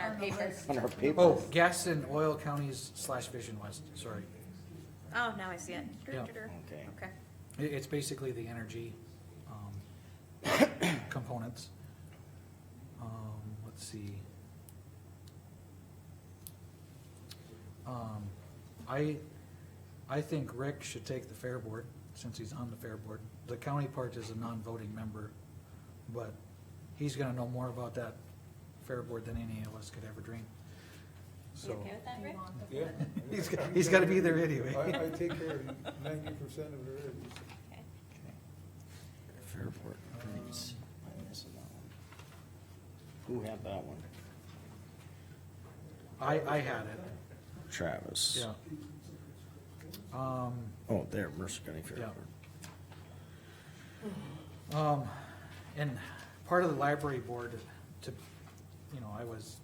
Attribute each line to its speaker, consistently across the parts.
Speaker 1: our papers.
Speaker 2: on our
Speaker 3: Oh,
Speaker 2: papers.
Speaker 3: gas and oil counties slash Vision West, sorry.
Speaker 1: Oh, now I see it. Dur,
Speaker 3: Yeah.
Speaker 1: dur, dur.
Speaker 2: Okay.
Speaker 1: Okay.
Speaker 3: I- it's basically the energy, um, components. Um, let's see. Um, I, I think Rick should take the fair board, since he's on the fair board. The county part is a non-voting member, but he's gonna know more about that fair board than any of us could ever dream.
Speaker 1: You
Speaker 3: So,
Speaker 1: okay with that, Rick?
Speaker 4: Yeah.
Speaker 3: he's, got- he's gotta be there
Speaker 4: I,
Speaker 3: anyway.
Speaker 4: I take care of ninety percent of it already.
Speaker 1: Okay.
Speaker 3: Oh,
Speaker 2: Fairport Prince, I'm missing that one. Who had that one?
Speaker 3: I, I had it,
Speaker 2: Travis.
Speaker 3: yeah. Um,
Speaker 2: Oh, there, Mercer County
Speaker 3: Yeah.
Speaker 2: Fairport.
Speaker 3: Um, and part of the library board to, you know, I was,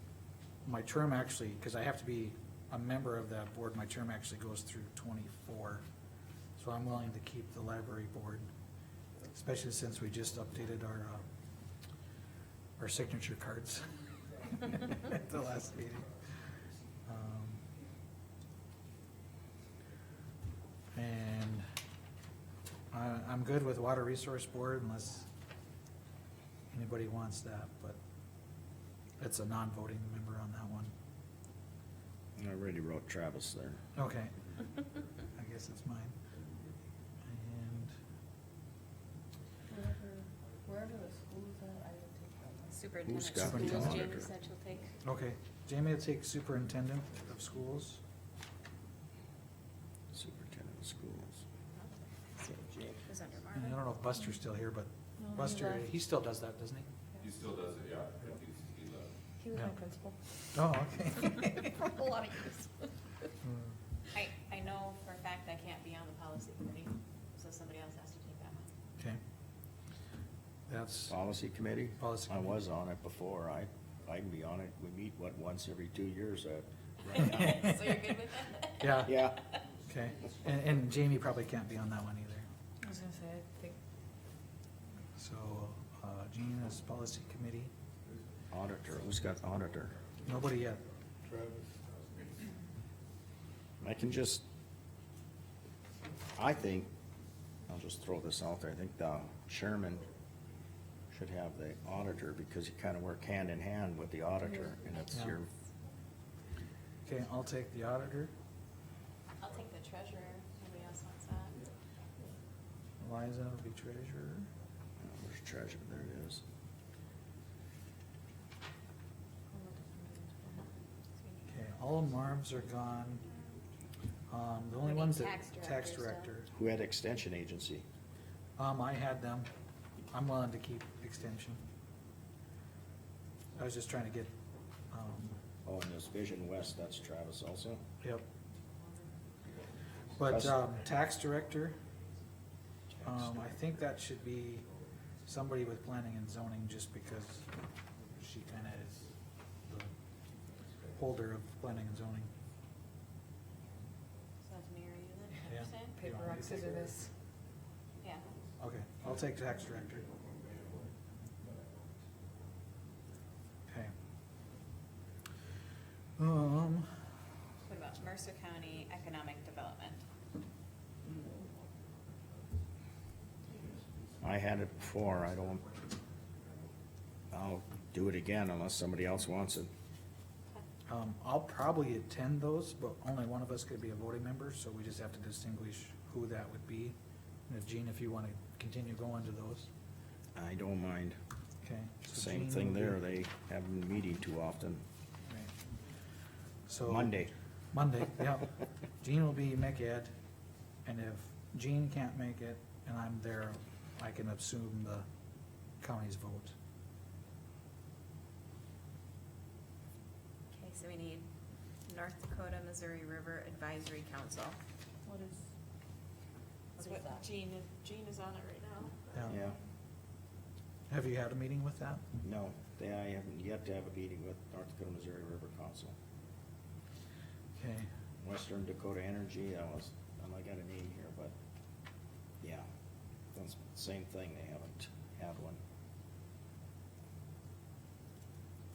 Speaker 3: my term actually, cause I have to be a member of that board, my term actually goes through twenty-four. So I'm willing to keep the library board, especially since we just updated our, uh, our signature cards at the last meeting. Um, And I, I'm good with Water Resource Board unless anybody wants that, but it's a non-voting member on that one.
Speaker 2: I already wrote Travis there.
Speaker 3: Okay. I guess it's mine. And
Speaker 5: Wherever, wherever the school's at, I would take that one.
Speaker 1: Superintendent.
Speaker 2: Who's got
Speaker 1: schools,
Speaker 3: Superintendent.
Speaker 1: Jamie said she'll take.
Speaker 3: Okay, Jamie will take superintendent of schools.
Speaker 2: Superintendent of Schools.
Speaker 1: It was under
Speaker 3: And I don't
Speaker 1: Marvin.
Speaker 3: know if Buster's still here, but
Speaker 5: No, he
Speaker 3: Buster,
Speaker 5: left.
Speaker 3: he still does that, doesn't he?
Speaker 6: He still does it, yeah, he's, he left.
Speaker 5: He was my
Speaker 3: Yeah.
Speaker 5: principal.
Speaker 3: Oh, okay.
Speaker 5: For a lot of years.
Speaker 3: Hmm.
Speaker 1: I, I know for a fact I can't be on the policy committee, so somebody else has to take that one.
Speaker 3: Okay. That's,
Speaker 2: Policy Committee?
Speaker 3: Policy
Speaker 2: I
Speaker 3: Committee.
Speaker 2: was on it before. I, I can be on it. We meet, what, once every two years, uh, right now.
Speaker 1: So you're good with that?
Speaker 3: yeah,
Speaker 2: Yeah,
Speaker 3: okay. And, and Jamie probably can't be on that one either.
Speaker 5: I was gonna say, I think.
Speaker 3: So, uh, Jean is policy committee.
Speaker 2: auditor. Who's got auditor?
Speaker 3: Nobody yet.
Speaker 4: Travis.
Speaker 2: I can just, I think, I'll just throw this out there, I think the chairman should have the auditor, because you kind of work hand in hand with the auditor,
Speaker 1: Mm-hmm.
Speaker 2: and it's
Speaker 3: Yeah.
Speaker 2: your,
Speaker 3: Okay, I'll take the auditor.
Speaker 1: I'll take the treasurer, nobody else wants that.
Speaker 3: Liza will be treasurer.
Speaker 2: oh, there's treasure, there it is.
Speaker 3: Okay, all Marv's are gone. Um, the only
Speaker 1: We need
Speaker 3: ones that,
Speaker 1: tax
Speaker 3: tax
Speaker 1: director,
Speaker 3: director.
Speaker 2: Who had extension agency?
Speaker 3: Um, I had them. I'm willing to keep extension. I was just trying to get, um,
Speaker 2: Oh, and this Vision West, that's Travis also?
Speaker 3: yep. But,
Speaker 2: That's-
Speaker 3: um, tax director, um, I think that should be somebody with planning and zoning, just because she kinda is the holder of planning and zoning.
Speaker 1: So that's Mary, is it,
Speaker 3: Yeah.
Speaker 1: you said?
Speaker 5: Paper, rock, scissors, this.
Speaker 1: Yeah.
Speaker 3: Okay, I'll take tax director. Okay. Um,
Speaker 1: What about Mercer County Economic Development?
Speaker 2: I had it before, I don't, I'll do it again unless somebody else wants it.
Speaker 3: um, I'll probably attend those, but only one of us could be a voting member, so we just have to distinguish who that would be. And if Gene, if you wanna continue going to those,
Speaker 2: I don't mind.
Speaker 3: okay. so
Speaker 2: Same
Speaker 3: Gene
Speaker 2: thing
Speaker 3: will be-
Speaker 2: there, they haven't meeting too often.
Speaker 3: Right. So.
Speaker 2: Monday.
Speaker 3: Monday, yeah. Jean will be make it, and if Jean can't make it and I'm there, I can assume the county's vote.
Speaker 1: Okay, so we need North Dakota Missouri River Advisory Council.
Speaker 5: What is?
Speaker 1: That's
Speaker 5: what
Speaker 1: what
Speaker 5: is that?
Speaker 1: Jean, Jean is on it right now.
Speaker 2: Yeah,
Speaker 3: Have you had a meeting with that?
Speaker 2: no, they, I haven't yet to have a meeting with North Dakota Missouri River Council.
Speaker 3: Okay,
Speaker 2: Western Dakota Energy, I was, and I got a name here, but, yeah, that's the same thing, they haven't had one.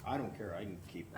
Speaker 2: I don't care, I can keep